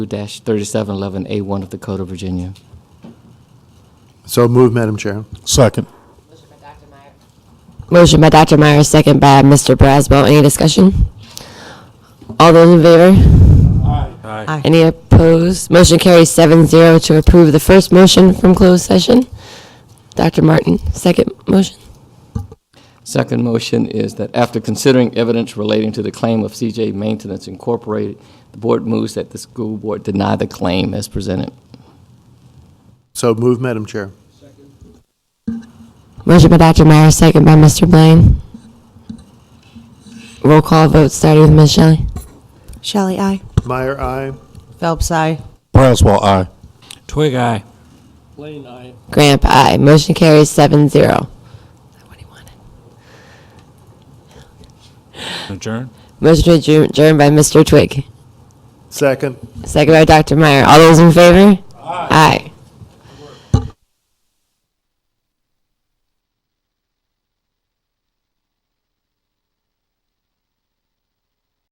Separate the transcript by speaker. Speaker 1: 3711A1 of the Code of Virginia.
Speaker 2: So moved, Madam Chair.
Speaker 3: Second.
Speaker 4: Motion by Dr. Meyer, second by Mr. Braswell. Any discussion? All those in favor? Aye. Any opposed? Motion carries seven zero to approve the first motion from closed session. Dr. Martin, second motion.
Speaker 1: Second motion is that after considering evidence relating to the claim of CJ Maintenance Incorporated, the board moves that the school board deny the claim as presented.
Speaker 2: So moved, Madam Chair.
Speaker 4: Motion by Dr. Meyer, second by Mr. Blaine. Roll call vote starting with Ms. Shelley.
Speaker 5: Shelley, I.
Speaker 2: Meyer, aye.
Speaker 5: Phelps, I.
Speaker 3: Braswell, aye.
Speaker 6: Twig eye.
Speaker 4: Grant, aye. Motion carries seven zero.
Speaker 6: Adjourn.
Speaker 4: Motion to adjourn- adjourn by Mr. Twig.
Speaker 2: Second.
Speaker 4: Second by Dr. Meyer. All those in favor? Aye.